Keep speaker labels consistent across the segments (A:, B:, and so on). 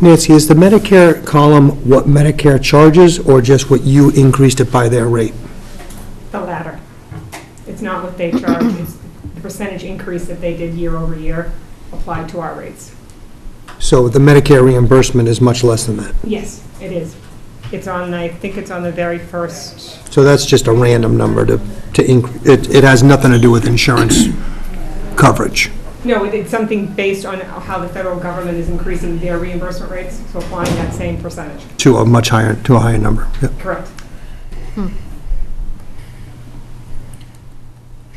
A: Nancy, is the Medicare column what Medicare charges, or just what you increased it by their rate?
B: The latter. It's not what they charge, it's the percentage increase that they did year over year applied to our rates.
A: So the Medicare reimbursement is much less than that.
B: Yes, it is. It's on, I think it's on the very first,
A: So that's just a random number to, to, inc- it, it has nothing to do with insurance coverage.
B: no, it- it's something based on how the federal government is increasing their reimbursement rates, so applying that same percentage.
A: to a much higher, to a higher number. Yeah.
B: Correct.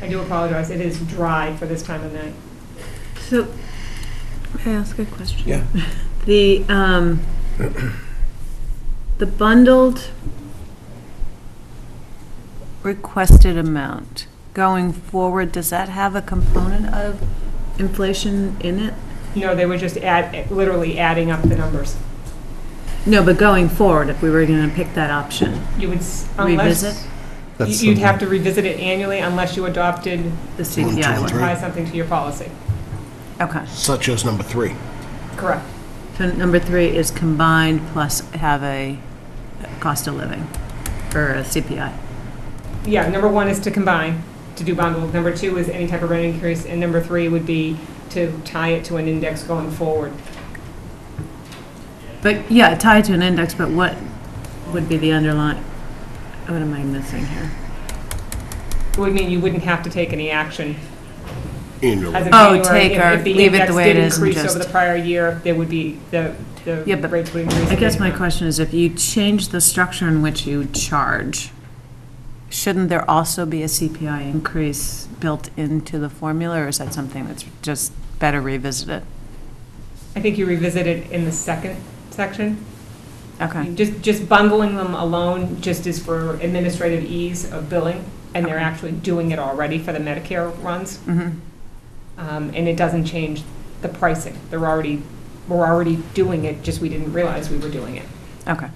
B: I do apologize, it is dry for this time of night.
C: So, may I ask a question? Yeah. The, um, the bundled requested amount going forward, does that have a component of inflation in it?
B: No, they were just add, literally adding up the numbers.
C: No, but going forward, if we were gonna pick that option,
B: You would, s- unless...
C: Revisit?
A: That's
B: You'd
A: something-
B: have to revisit it annually unless you adopted,
C: the CPI one.
B: apply something to your policy.
C: Okay.
D: Such as number three.
B: Correct.
C: So number three is combined plus have a cost of living, or a CPI.
B: Yeah, number one is to combine, to do bundled. Number two is any type of rent increase, and number three would be to tie it to an index going forward.
C: But, yeah, tied to an index, but what would be the underlying, what am I missing here?
B: It would mean you wouldn't have to take any action as
D: Annually.
B: of
C: Oh,
B: January.
C: take
B: If-
C: or
B: if
C: leave it the way it is and
B: index did increase over
C: just-
B: the prior year, there would be, the, the
C: Yeah, but
B: rates would increase.
C: I guess my
B: based on-
C: question is, if you change the structure in which you charge, shouldn't there also be a CPI increase built into the formula, or is that something that's just better revisited?
B: I think you revisit it in the second section.
C: Okay,
B: Just, just bundling them alone just is for administrative ease of billing, and they're
C: Okay.
B: actually doing it already for the Medicare runs.
C: mhm,
B: Um, And it doesn't change the pricing. They're already, we're already doing it, just we didn't realize we were doing it.
C: okay.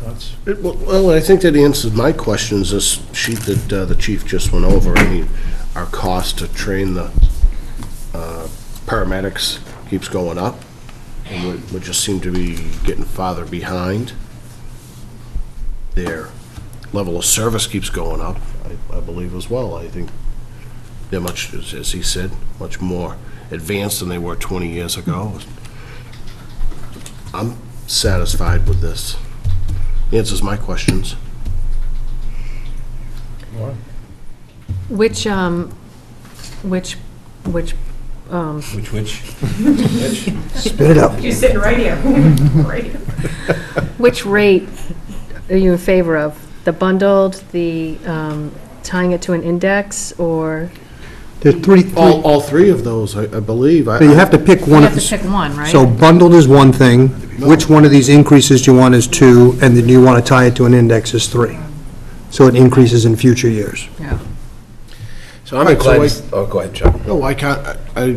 E: Thoughts?
D: It- Well, well, I think that answers my questions, this sheet that uh, the chief just went over, I mean, our cost to train the uh, paramedics keeps going up, and we- we just seem to be getting farther behind. Their level of service keeps going up, I- I believe as well. I think they're much, as as he said, much more advanced than they were 20 years ago. I'm satisfied with this answers my questions.
E: Laura?
F: Which, um, which, which, um,
E: Which, which?
A: Spit it out.
B: You're sitting right here. Right here.
F: which rate are you in favor of? The bundled, the, um, tying it to an index, or?
A: There's three, three,
D: All, all three of those, I, I believe. I-
A: but you have to pick
F: You
A: one of
F: have to
A: the,
F: pick one, right?
A: so bundled is one thing, which one of these increases do you want is two, and then you want to tie it to an index is three. So it increases in future years.
F: Yeah.
E: So I'm
D: Right, so
E: glad,
D: I-
E: this- oh, go ahead, Chuck.
D: No, I can't, I- I,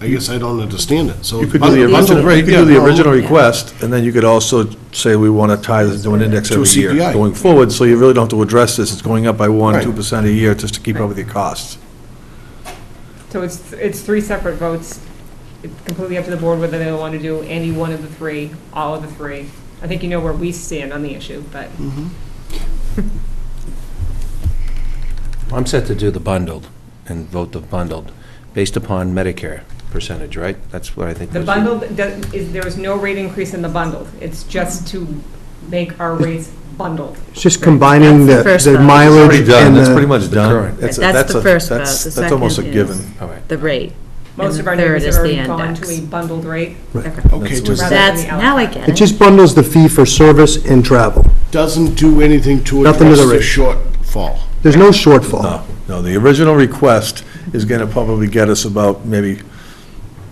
D: I guess I don't understand it, so.
E: You could do the
D: bundle-
E: original, right, you could do
D: yeah,
E: the
D: no,
E: original request, and then you could also say we want to tie this to an index
D: To a
E: every year
D: CPI.
E: going forward, so you really don't have to address this, it's going up by one,
D: Right.
E: two percent a year just to keep up with your costs.
B: So it's, it's three separate votes. It's completely up to the board whether they want to do any one of the three, all of the three. I think you know where we stand on the issue, but
G: I'm set to do the bundled and vote the bundled, based upon Medicare percentage, right? That's what I think.
B: the
G: was-
B: bundled, does- is- there is no rate increase in the bundled. It's just to make our rates bundled.
A: It's just combining the,
C: That's the first
A: the
C: vote.
A: mileage
E: Already
A: and
E: done, that's pretty
A: the,
E: much done.
G: current.
E: That's a-
C: That's
E: that's
C: the
E: a-
C: first vote.
E: that's-
C: The
E: That's almost a
C: second is-
E: given.
G: All right.
C: The rate.
B: Most
C: the
B: of our
C: third
B: neighbors
C: is
B: have
C: the
B: already gone to
C: index.
B: a bundled rate.
D: Okay,
E: That's
D: just
B: what-
C: That's,
B: Rather than
C: now I
A: it
C: get it.
A: just bundles the fee for service and travel.
D: doesn't do anything to
A: Nothing to
D: address
A: the
D: the
A: rate.
D: shortfall.
A: There's no shortfall.
E: No, no, the original request is going to probably get us about maybe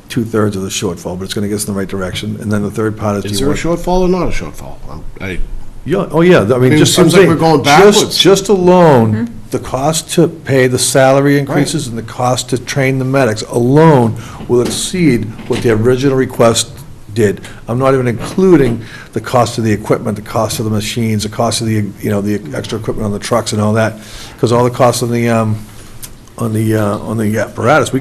E: two-thirds of the shortfall, but it's going to get us in the right direction. And then the third part is. do
D: Is there
E: you
D: a
E: want-
D: shortfall or not a shortfall? I'm- I,
E: Yeah, oh, yeah, I mean,
D: mean,
E: just.
D: it seems like
E: I'm
D: we're
E: saying,
D: going
E: just-
D: backwards.
E: Just alone, the cost to pay the salary increases and the cost to train the medics alone will exceed what the original request did. I'm not even including the cost of the equipment, the cost of the machines, the cost of the, you know, the extra equipment on the trucks and all that, because all the costs on the, um, on the, uh, on the apparatus, we